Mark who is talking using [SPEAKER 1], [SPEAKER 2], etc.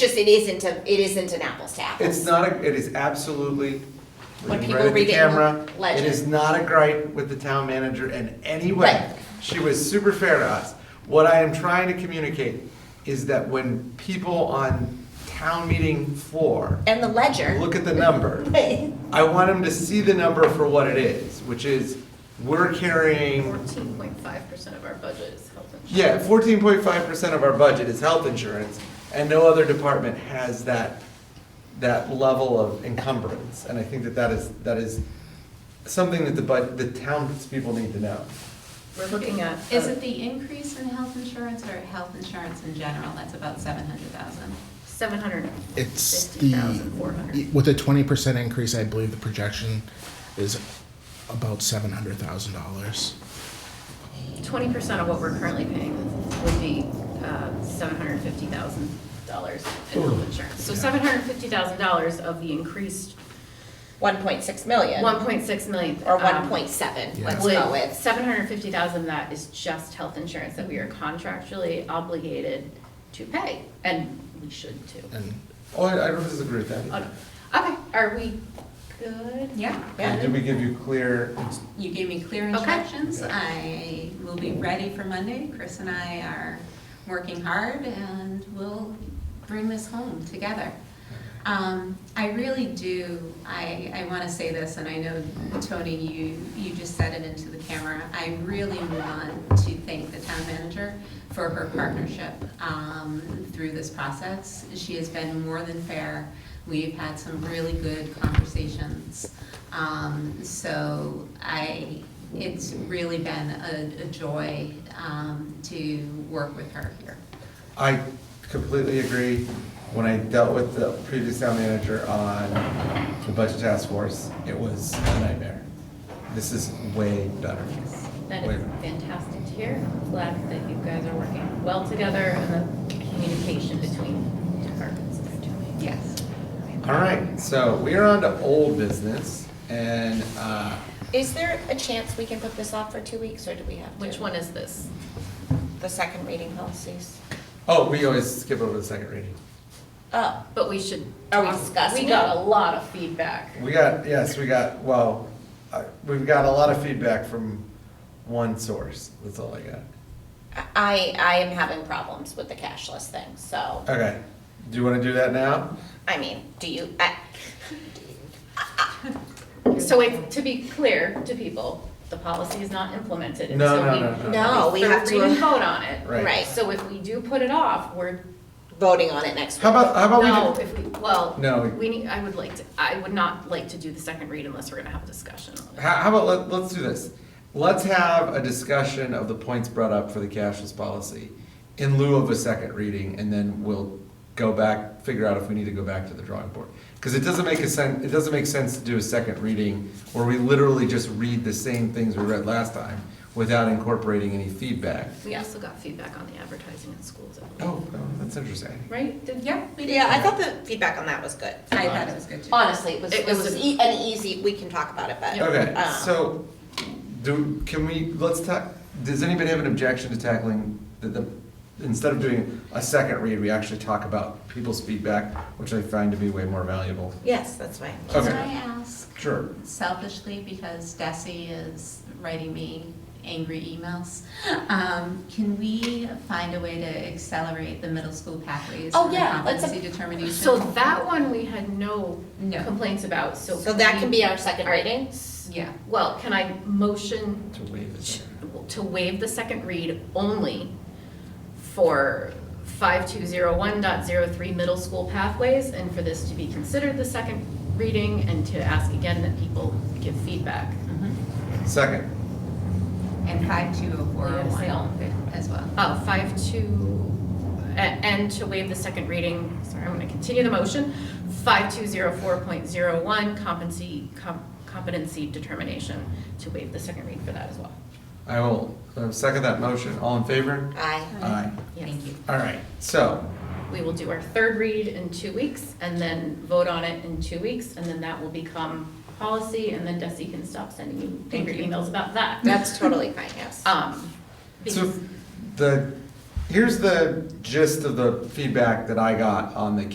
[SPEAKER 1] just, it isn't a, it isn't an apples to apples.
[SPEAKER 2] It's not, a. it is absolutely,
[SPEAKER 1] When
[SPEAKER 2] looking
[SPEAKER 1] people
[SPEAKER 2] right at the
[SPEAKER 1] read it in
[SPEAKER 2] camera, it
[SPEAKER 1] legend.
[SPEAKER 2] is not a gripe with the town manager in any
[SPEAKER 1] Right.
[SPEAKER 2] way. She was super fair to us. What I am trying to communicate is that when people on town meeting floor
[SPEAKER 1] And the ledger.
[SPEAKER 2] look at the number,
[SPEAKER 1] Right.
[SPEAKER 2] I want them to see the number for what it is, which is, we're carrying
[SPEAKER 3] Fourteen point five percent of our budget is health insurance.
[SPEAKER 2] Yeah, fourteen point five percent of our budget is health insurance, and no other department has that, that level of encumbrance. And I think that that is, that is something that the, bud- the townspeople need to know.
[SPEAKER 3] We're looking at. uh,
[SPEAKER 4] Is it the increase in health insurance or health insurance in general? That's about seven hundred thousand.
[SPEAKER 3] Seven hundred
[SPEAKER 5] It's
[SPEAKER 3] fifty thousand four
[SPEAKER 5] the,
[SPEAKER 3] hundred.
[SPEAKER 5] with a twenty percent increase, I believe the projection is about seven hundred thousand dollars.
[SPEAKER 3] Twenty percent of what we're currently paying would be uh, seven hundred fifty thousand dollars in health insurance. So seven hundred fifty thousand dollars of the increased
[SPEAKER 1] One point six million.
[SPEAKER 3] one point six million. um,
[SPEAKER 1] Or one point seven,
[SPEAKER 5] Yeah.
[SPEAKER 1] let's go with.
[SPEAKER 3] Seven hundred fifty thousand of that is just health insurance that we are contractually obligated to pay, and we should too.
[SPEAKER 5] And
[SPEAKER 2] Oh, I I don't disagree with
[SPEAKER 3] Oh,
[SPEAKER 2] that.
[SPEAKER 3] no. Okay, are we good?
[SPEAKER 4] Yeah.
[SPEAKER 2] And did we give you clear,
[SPEAKER 4] You gave me clear
[SPEAKER 3] Okay.
[SPEAKER 4] instructions. I will be ready for Monday. Chris and I are working hard and we'll bring this home together. Um, I really do, I, I want to say this, and I know, Tony, you, you just said it into the camera. I really want to thank the town manager for her partnership um, through this process. She has been more than fair. We've had some really good conversations. Um, So I, it's really been a, a joy um, to work with her here.
[SPEAKER 2] I completely agree. When I dealt with the previous town manager on the budget task force, it was a nightmare. This is way better.
[SPEAKER 3] That
[SPEAKER 2] Way
[SPEAKER 3] is
[SPEAKER 2] better.
[SPEAKER 3] fantastic to hear. I'm Glad that you guys are working well together and the communication between departments is doing.
[SPEAKER 4] Yes.
[SPEAKER 2] All right, so we are on to old business, and, uh,
[SPEAKER 1] Is there a chance we can put this off for two weeks, or do we have to?
[SPEAKER 3] Which one is this?
[SPEAKER 1] The second reading policies.
[SPEAKER 2] oh, we always skip over the second reading.
[SPEAKER 1] Oh,
[SPEAKER 3] But we should.
[SPEAKER 1] Are we
[SPEAKER 3] talk-
[SPEAKER 1] discussing
[SPEAKER 3] We got
[SPEAKER 1] it?
[SPEAKER 3] a lot of feedback.
[SPEAKER 2] We got, yes, we got, well, I- we've got a lot of feedback from one source, that's all I got.
[SPEAKER 1] I, I am having problems with the cashless thing, so,
[SPEAKER 2] Okay, do you wanna do that now?
[SPEAKER 1] I mean, do you, I,
[SPEAKER 3] So it's, to be clear to people, the policy is not implemented. and
[SPEAKER 2] No,
[SPEAKER 3] so
[SPEAKER 2] no,
[SPEAKER 3] we-
[SPEAKER 2] no, no.
[SPEAKER 1] no, we
[SPEAKER 3] third
[SPEAKER 1] have
[SPEAKER 3] read and
[SPEAKER 1] to, uh,
[SPEAKER 3] vote on it.
[SPEAKER 2] Right.
[SPEAKER 1] right, so
[SPEAKER 3] So if we do put it off, we're,
[SPEAKER 1] voting on it next week.
[SPEAKER 2] How about, how
[SPEAKER 3] no,
[SPEAKER 2] about we, do-
[SPEAKER 3] if we, well,
[SPEAKER 2] No.
[SPEAKER 3] we need, I would like to, I would not like to do the second read unless we're gonna have a discussion on it.
[SPEAKER 2] how, how about, let, let's do this. Let's have a discussion of the points brought up for the cashless policy in lieu of a second reading, and then we'll go back, figure out if we need to go back to the drawing board. Cause it doesn't make a sen, it doesn't make sense to do a second reading where we literally just read the same things we read last time without incorporating any feedback.
[SPEAKER 3] We also got feedback on the advertising in schools, I believe.
[SPEAKER 2] Oh, oh, that's interesting.
[SPEAKER 3] right? Did-
[SPEAKER 4] Yeah, we did.
[SPEAKER 1] Yeah, I thought the feedback on that was good.
[SPEAKER 4] I thought it was good too.
[SPEAKER 1] Honestly, it was, it
[SPEAKER 3] It was
[SPEAKER 1] was
[SPEAKER 3] a-
[SPEAKER 1] e- an easy, we can talk about it, but.
[SPEAKER 2] Okay,
[SPEAKER 1] um,
[SPEAKER 2] so, do, can we, let's ta, does anybody have an objection to tackling the, the, instead of doing a second read, we actually talk about people's feedback, which I find to be way more valuable?
[SPEAKER 1] Yes, that's fine.
[SPEAKER 2] Okay.
[SPEAKER 4] Can I ask
[SPEAKER 2] Sure.
[SPEAKER 4] selfishly, because Desi is writing me angry emails, um, can we find a way to accelerate the middle school pathways?
[SPEAKER 1] Oh,
[SPEAKER 4] for the
[SPEAKER 1] yeah, let's-
[SPEAKER 4] Competency determination?
[SPEAKER 3] So that one we had no
[SPEAKER 4] No.
[SPEAKER 3] complaints about, so.
[SPEAKER 1] So that can be our second
[SPEAKER 3] All right.
[SPEAKER 1] reading?
[SPEAKER 4] Yeah.
[SPEAKER 3] Well, can I motion
[SPEAKER 2] To waive it.
[SPEAKER 3] to waive the second read only for 5201.03 middle school pathways, and for this to be considered the second reading, and to ask again that people give feedback.
[SPEAKER 4] Mhm.
[SPEAKER 2] Second,
[SPEAKER 4] And five two oh four oh
[SPEAKER 3] Yeah, say all in
[SPEAKER 4] one as well.
[SPEAKER 3] Oh, five two, a- and to waive the second reading, sorry, I'm gonna continue the motion, 5204.01 competency, com- competency determination, to waive the second read for that as well.
[SPEAKER 2] I will, uh, second that motion, all in favor?
[SPEAKER 1] Aye.
[SPEAKER 2] Aye.
[SPEAKER 3] Yes.
[SPEAKER 4] Thank you.
[SPEAKER 2] All right, so,
[SPEAKER 3] We will do our third read in two weeks and then vote on it in two weeks, and then that will become policy, and then Desi can stop sending you
[SPEAKER 4] Thank
[SPEAKER 3] angry
[SPEAKER 4] you.
[SPEAKER 3] emails about that.
[SPEAKER 1] That's totally fine, yes.
[SPEAKER 3] Um,
[SPEAKER 2] so,
[SPEAKER 3] because-
[SPEAKER 2] the, here's the gist of the feedback that I got on the